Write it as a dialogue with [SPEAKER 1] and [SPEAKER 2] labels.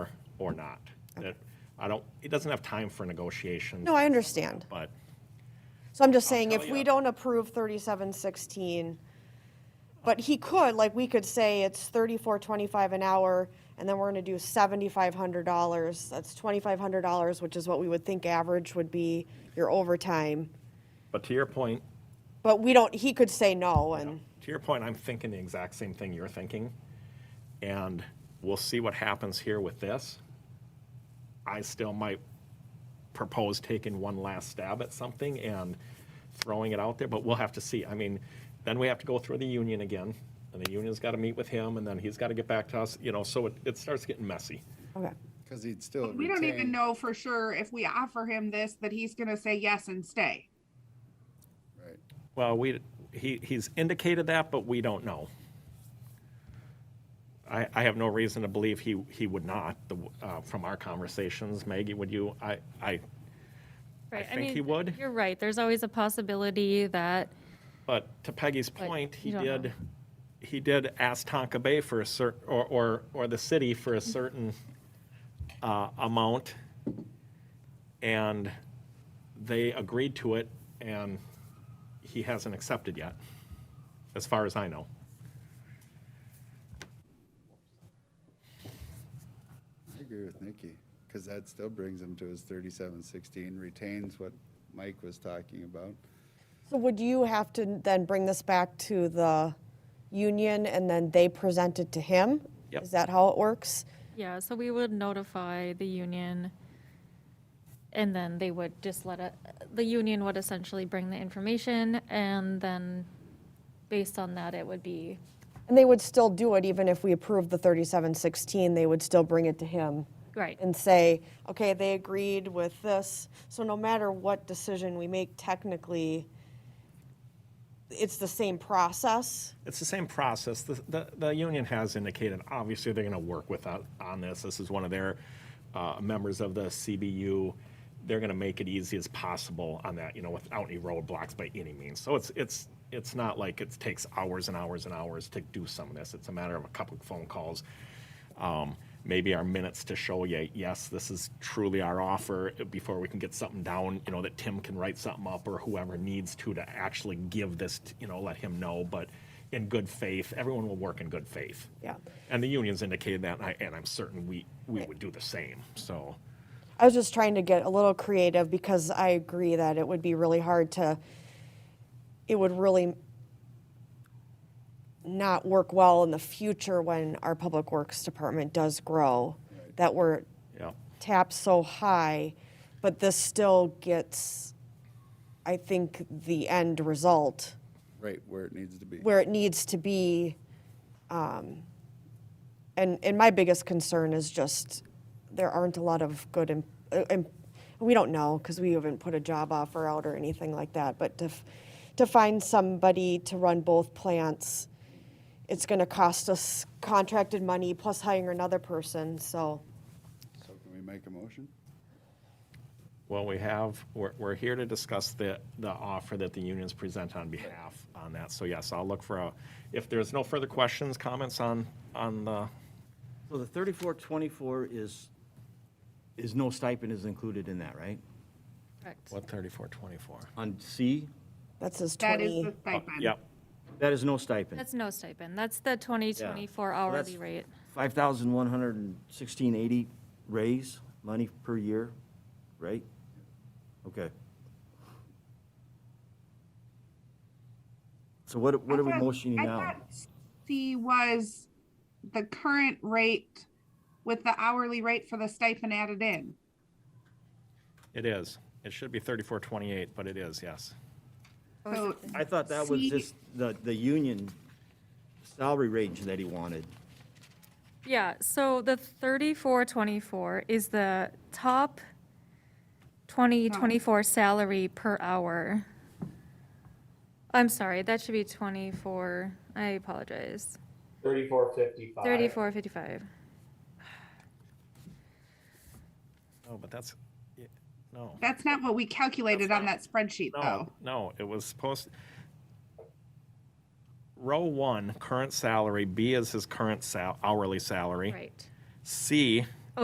[SPEAKER 1] or not. That- I don't, it doesn't have time for negotiation,
[SPEAKER 2] No, I understand.
[SPEAKER 1] but
[SPEAKER 2] So I'm just saying,
[SPEAKER 1] tell
[SPEAKER 2] if
[SPEAKER 1] ya.
[SPEAKER 2] we don't approve thirty-seven sixteen, but he could, like, we could say it's thirty-four twenty-five an hour, and then we're gonna do seventy-five hundred dollars. That's twenty-five hundred dollars, which is what we would think average would be your overtime.
[SPEAKER 1] But to your point,
[SPEAKER 2] But we don't, he could say no, and,
[SPEAKER 1] to your point, I'm thinking the exact same thing you're thinking. And we'll see what happens here with this. I still might propose taking one last stab at something and throwing it out there, but we'll have to see. I mean, then we have to go through the union again, and the union's got to meet with him, and then he's got to get back to us, you know, so it, it starts getting messy.
[SPEAKER 2] okay.
[SPEAKER 3] Because he'd still.
[SPEAKER 4] We don't even
[SPEAKER 3] retain-
[SPEAKER 4] know for sure if we offer him this, that he's gonna say yes and stay.
[SPEAKER 3] Right.
[SPEAKER 1] Well, we, he, he's indicated that, but we don't know. I, I have no reason to believe he, he would not, the, uh, from our conversations. Maggie, would you, I, I,
[SPEAKER 5] Right,
[SPEAKER 1] think he
[SPEAKER 5] mean,
[SPEAKER 1] would.
[SPEAKER 5] You're right. There's always a possibility that,
[SPEAKER 1] but to Peggy's point, he
[SPEAKER 5] you don't know.
[SPEAKER 1] did, he did ask Tonka Bay for a cer, or, or, or the city for
[SPEAKER 5] Mm-hmm.
[SPEAKER 1] a certain, uh, amount. And they agreed to it and he hasn't accepted yet, as far as I know.
[SPEAKER 3] I agree with Nikki, because that still brings him to his thirty-seven sixteen, retains what Mike was talking about.
[SPEAKER 2] So would you have to then bring this back to the union, and then they present it to him?
[SPEAKER 1] Yep.
[SPEAKER 2] Is that how it works?
[SPEAKER 5] yeah, so we would notify the union. And then they would just let it, the union would essentially bring the information and then based on that, it would be,
[SPEAKER 2] And they would still do it, even if we approved the thirty-seven sixteen, they would still bring it to him
[SPEAKER 5] right,
[SPEAKER 2] and say, okay, they agreed with this. So no matter what decision we make technically, it's the same process.
[SPEAKER 1] It's the same process. The, the, the union has indicated, obviously, they're going to work with us on this. This is one of their uh, members of the CBU. They're going to make it easy as possible on that, you know, without any roadblocks by any means. So it's, it's, it's not like it takes hours and hours and hours to do some of this. It's a matter of a couple of phone calls, um, maybe our minutes to show you, yes, this is truly our offer before we can get something down, you know, that Tim can write something up or whoever needs to to actually give this, t- you know, let him know. But in good faith, everyone will work in good faith.
[SPEAKER 2] Yeah.
[SPEAKER 1] And the unions indicated that, and, I, and I'm certain we, we would do the same. So,
[SPEAKER 2] I was just trying to get a little creative because I agree that it would be really hard to, it would really not work well in the future when our public works department does grow, that we're
[SPEAKER 1] yeah.
[SPEAKER 2] tapped so high, but this still gets, I think, the end result
[SPEAKER 3] Right where it needs to be.
[SPEAKER 2] where it needs to be. um, And, and my biggest concern is just, there aren't a lot of good, em- uh, em- we don't know, because we haven't put a job offer out or anything like that, but to, f- to find somebody to run both plants, it's gonna cost us contracted money plus hiring another person, so.
[SPEAKER 3] So can we make a motion?
[SPEAKER 1] Well, we have, we're, we're here to discuss the, the offer that the unions present on behalf on that. So yes, I'll look for a, if there's no further questions, comments on, on the,
[SPEAKER 6] So the thirty-four twenty-four is, is no stipend is included in that, right?
[SPEAKER 5] correct.
[SPEAKER 1] what, 3424?
[SPEAKER 6] On C,
[SPEAKER 2] That's his
[SPEAKER 4] That is
[SPEAKER 2] twenty,
[SPEAKER 4] the stipend.
[SPEAKER 1] Yep.
[SPEAKER 6] that is no stipend.
[SPEAKER 5] That's no stipend. That's the 2024 hourly rate.
[SPEAKER 6] Five thousand one hundred and sixteen eighty raise, money per year, right? Okay. So what, what are we
[SPEAKER 4] I thought-
[SPEAKER 6] motioning
[SPEAKER 4] I
[SPEAKER 6] now?
[SPEAKER 4] thought C was the current rate with the hourly rate for the stipend added in.
[SPEAKER 1] It is. It should be 3428, but it is, yes.
[SPEAKER 4] So
[SPEAKER 6] I thought that was
[SPEAKER 4] C-
[SPEAKER 6] just the, the union salary range that he wanted.
[SPEAKER 5] Yeah, so the 3424 is the top 2024 salary per hour. I'm sorry, that should be 24, I apologize,
[SPEAKER 7] Thirty-four fifty-five.
[SPEAKER 5] 3455.
[SPEAKER 1] No, but that's, yeah, no,
[SPEAKER 4] that's not what we calculated on that spreadsheet
[SPEAKER 1] no,
[SPEAKER 4] though.
[SPEAKER 1] no, it was supposed, row one, current salary, B is his current sal, hourly salary.
[SPEAKER 5] Right,
[SPEAKER 1] C